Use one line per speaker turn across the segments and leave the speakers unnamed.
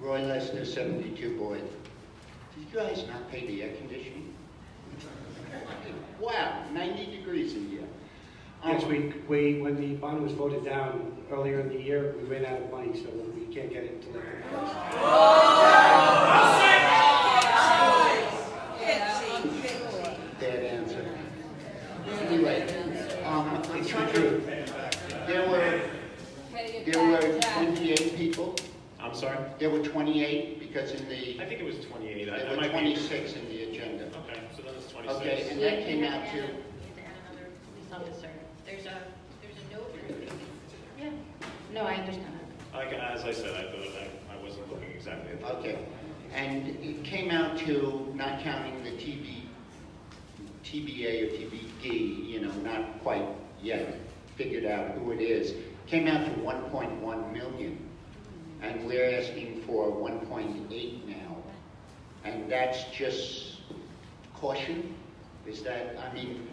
Roy Lesnar, 72 Boyd. Did you guys not pay the air conditioning? Wow, 90 degrees in here.
Yes,
Um,
we, we, when the bond was voted down earlier in the year, we ran out of money, so we can't get it until later.
Bad answer. Anyway, um, I'm trying to, there were, there were 28 people.
I'm sorry?
There were 28 because in the,
I think it was 28. I- I
there were
might be-
26 in the agenda.
Okay, so then it's
Okay,
26.
and that came out to
police officer. There's a, there's a note. Yeah. No, I understand.
Like, as I said, I thought I, I wasn't looking exactly at that.
Okay, and it came out to, not counting the TB, TBA or TBD, you know, not quite yet figured out who it is, came out to one point one million. And we're asking for one point eight now. And that's just caution? Is that, I mean,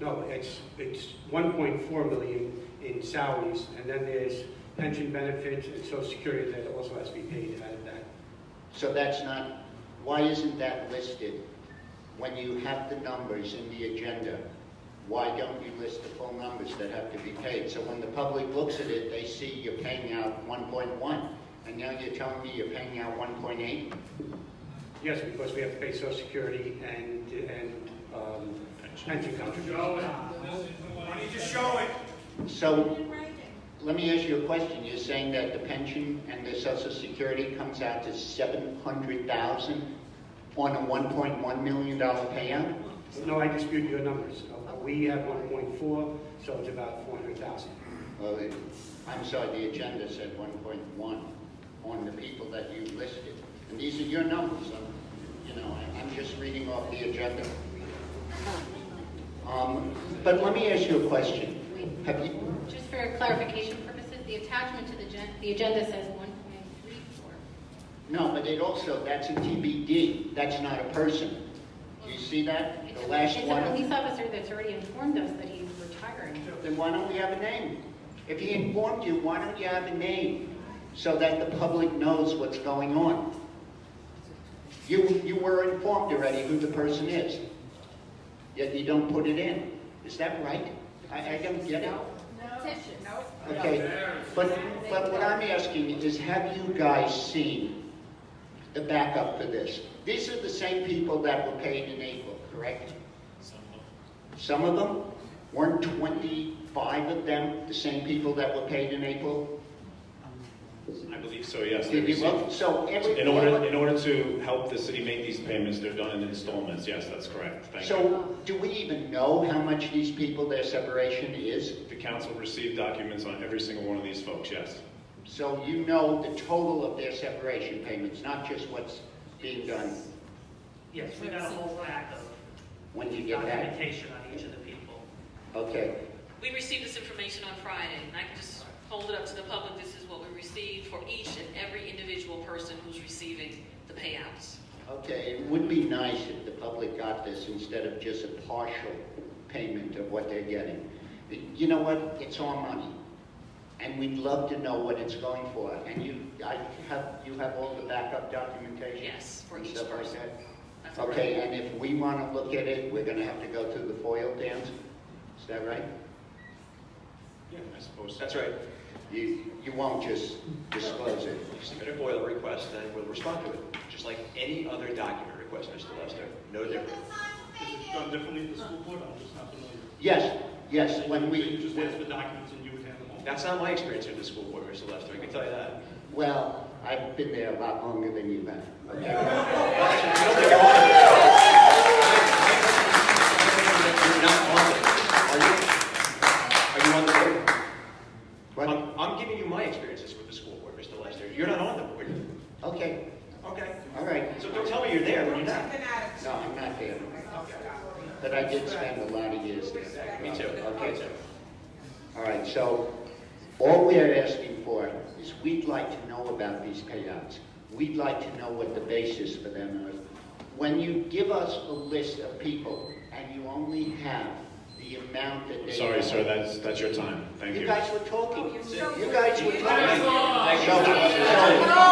No, it's, it's 1.4 million in salaries, and then there's pension benefits and social security that also has to be paid out of that.
so that's not, why isn't that listed? When you have the numbers in the agenda, why don't you list the full numbers that have to be paid? So when the public looks at it, they see you're paying out 1.1, and now you're telling me you're paying out 1.8?
Yes, because we have to pay social security and, and um, pension contributions.
So, let me ask you a question. You're saying that the pension and the social security comes out to 700,000 on a 1.1 million dollar payout?
No, I dispute your numbers. Uh, We have 1.4, so it's about 400,000.
Well, it- I'm sorry, the agenda said 1.1 on the people that you listed. And these are your numbers, I'm- you know, I- I'm just reading off the agenda. Um, But let me ask you a question. Have you,
Just for clarification purposes, the attachment to the gen, the agenda says one point three four.
no, but it also, that's a TBD, that's not a person. You see that? The last
It's a police
one,
officer that's already informed us that he's retiring.
then why don't we have a name? If he informed you, why don't you have a name so that the public knows what's going on? You, you were informed already who the person is, yet you don't put it in. Is that right? I, I don't get it. Okay, but, but what I'm asking is, have you guys seen the backup for this? These are the same people that were paid in April, correct? Some of them? Weren't 25 of them the same people that were paid in April?
I believe so, yes. they
Did you
received-
look? So every...
In order, in order to help the city make these payments, they're done in installments. Yes, that's correct. Thank you.
So do we even know how much these people, their separation is?
The council received documents on every single one of these folks, yes.
So you know the total of their separation payments, not just what's being done
Yes, we got a whole rack of
when you get that?
documentation on each of the people.
Okay.
We received this information on Friday, and I can just hold it up to the public, this is what we received for each and every individual person who's receiving the payouts.
Okay, it would be nice if the public got this instead of just a partial payment of what they're getting. You know what, it's our money, and we'd love to know what it's going for, and you, I have, you have all the backup documentation?
Yes, for
and
each
stuff like
person.
that?
That's correct.
Okay, and if we want to look at it, we're gonna have to go through the FOIL, Dan, is that right?
Yeah, I suppose. That's right.
You, you won't just disclose it?
Submit a FOIL request, and we'll respond to it, just like any other document request, Mr. Lester. No different.
Is it done differently at the school board? I'm just not familiar.
Yes, yes, when
So You
we,
just ask for documents and you would handle them?
That's not my experience at the school board, Mr. Lester, I can tell you that.
well, I've been there a lot longer than you have, okay?
I don't think I'm on it. You're not on it. Are you? Are you on the board?
What?
I'm- I'm giving you my experiences with the school board, Mr. Lester. You're not on the board.
Okay,
Okay.
all right.
So don't tell me you're there when you're not.
No, I'm not there. But I did spend a lot of years there.
Me too.
Okay. All right, so all we're asking for is we'd like to know about these payouts. We'd like to know what the basis for them is. When you give us a list of people and you only have the amount that they.
Sorry, sir, that's, that's your time. Thank you.
You guys were talking. You guys were talking. So- so-